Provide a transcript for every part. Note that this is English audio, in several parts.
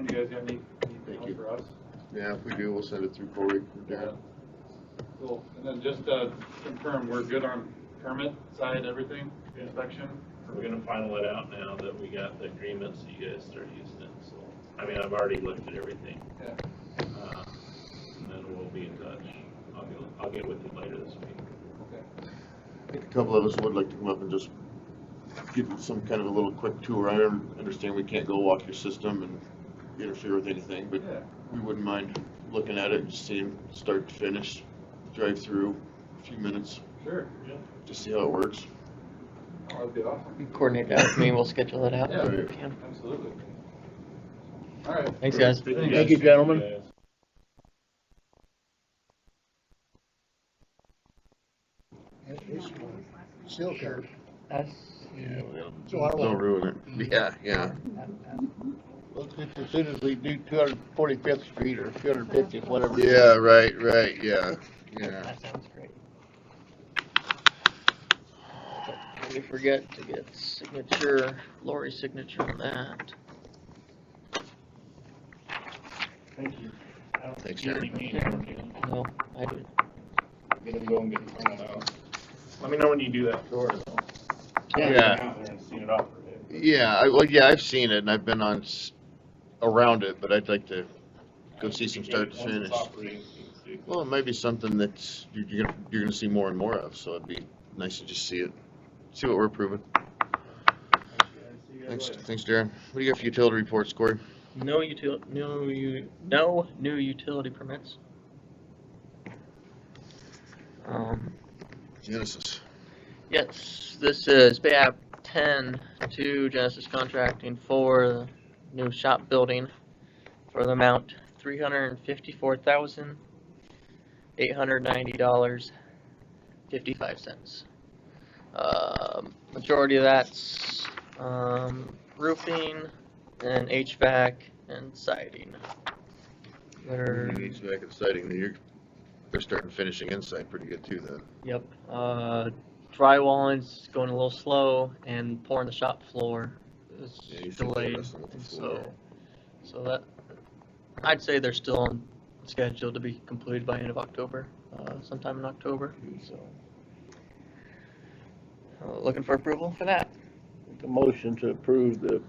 You guys got any, anything Thank else you. for us? Yeah, if we do, we'll send it through Corey. Yeah. Cool, and then just, uh, confirm, we're good on permit side, everything, Yeah. inspection? We're gonna final it out now that we got the agreements that you guys started using, so, I mean, I've already looked at everything. Yeah. Uh, And then we'll be in touch. I'll get, I'll get with you later this week. Okay. I think a couple of us would like to come up and just give some kind of a little quick tour. I understand we can't go walk your system and interfere with anything, but Yeah, we wouldn't mind looking at it and seeing start to finish, drive through, a few minutes, sure, just see how it works. oh, that'd be awesome, You Coordinate that with me, we'll schedule it out. Yeah. Yeah. absolutely. All right. Thanks, guys. Thank you, gentlemen. guys. It's still curb. That's, Yeah, So I Don't will, ruin it. Yeah, yeah. let's get as soon as we do two hundred forty-fifth street or two hundred fiftieth, whatever. Yeah, right, right, yeah, yeah. that sounds great. We forget to get signature, Lori's signature on that. Thank you. Thanks, You Jerry. really need one, you know, No, I didn't. Get them going, get them printed out. Let me know when you do that tour. though. Yeah. I've been Out there and seen it all for it. Yeah, I, well, yeah, I've seen it and I've been on, s- around it, but I'd like to Go see some start to Once it's finish. operating, you can see. Well, it might be something that you're, you're gonna, you're gonna see more and more of, so it'd be nice to just see it, see what we're approving. Thanks, thanks, Darren. What do you got for utility reports, Corey? No util, no, u no new utility permits. Um, Genesis. yes, this is Bay App ten to Genesis Contracting for the new shop building for the amount three hundred and fifty-four thousand, eight hundred ninety dollars, fifty-five cents. Um majority of that's, um, roofing and HVAC and siding. They're- Needs back exciting, you're, they're starting finishing inside pretty good too then. Yep. Uh, drywalling's going a little slow, and pouring the shop floor Yeah, you is think they're delayed, messing with the and so, floor. so that, I'd say they're still on schedule to be completed by end of October, uh, sometime in October, so. Uh, Looking for approval for that. Make a motion to approve the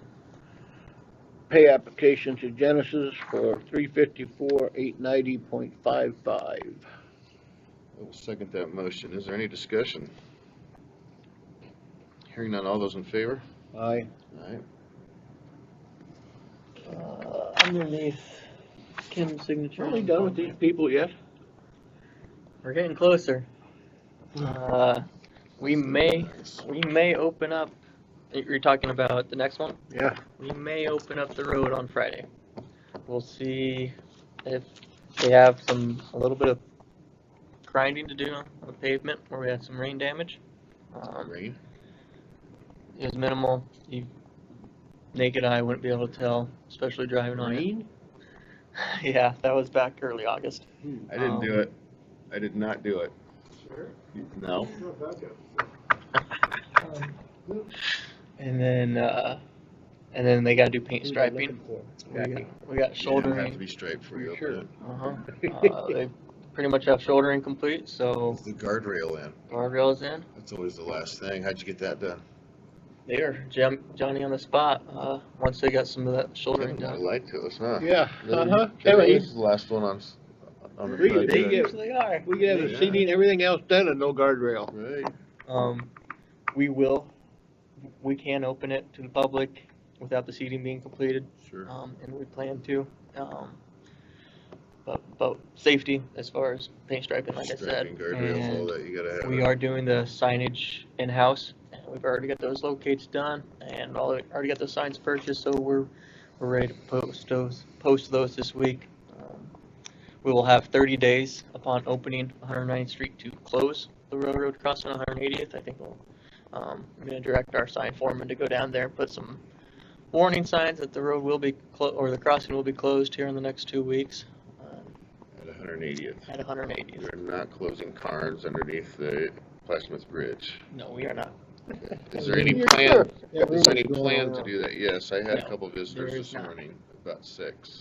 pay application to Genesis for three fifty-four, eight ninety point five five. I will second that motion. Is there any discussion? Hearing none, all those in favor? Aye. Alright, Uh, underneath Kim's signature. Are we done with these people yet? We're getting closer. Uh, we may, we may open up, you're talking about the next one? Yeah. We may open up the road on Friday. We'll see if they have some, a little bit of grinding to do on the pavement where we had some rain damage. Um, rain? it was minimal, you, naked eye wouldn't be able to tell, especially driving on it. Yeah, that was back early August. I didn't do it. I did not do it. Sure. No? And then, uh, and then they gotta do paint striping. We got, we got Shoulder. Have shouldering. to be straight for you. Sure. Uh-huh. Uh, they pretty much have shoulder incomplete, so The guardrail in. guardrails in. That's always the last thing. How'd you get that done? They are jam- Johnny on the spot. Uh, once they got some of that shouldering They done. lied to us, huh? Yeah, Really? uh-huh. They Anyway, was the last one on. s- on the Really? project. They get- Usually are. we could have the seating, and everything else done and no guardrail. Right. Um, we will, we can open it to the public without the seating being completed, Sure. um, and we plan to. Um, but, but safety as far as paint striping, like I said. Striping, guardrails, all and- that. You gotta have. We it. are doing the signage in-house, and we've already got those locates done, and all, already got those signs purchased, so we're, we're ready to post those, post those this week. Um, We will have thirty days upon opening 109th Street to close the railroad crossing 180th, I think we'll, um, I'm gonna direct our sign foreman to go down there, and put some warning signs that the road will be, clo- or the crossing will be closed here in the next two weeks, um, At hundred and eightieth. at 180th. You're not closing cars underneath the Plasmith Bridge. No, we are not, Is there any You're plan? sure? Yeah, Is there any rumors going plan to around. do that? Yes, I had a No, couple there visitors is this not. morning about six.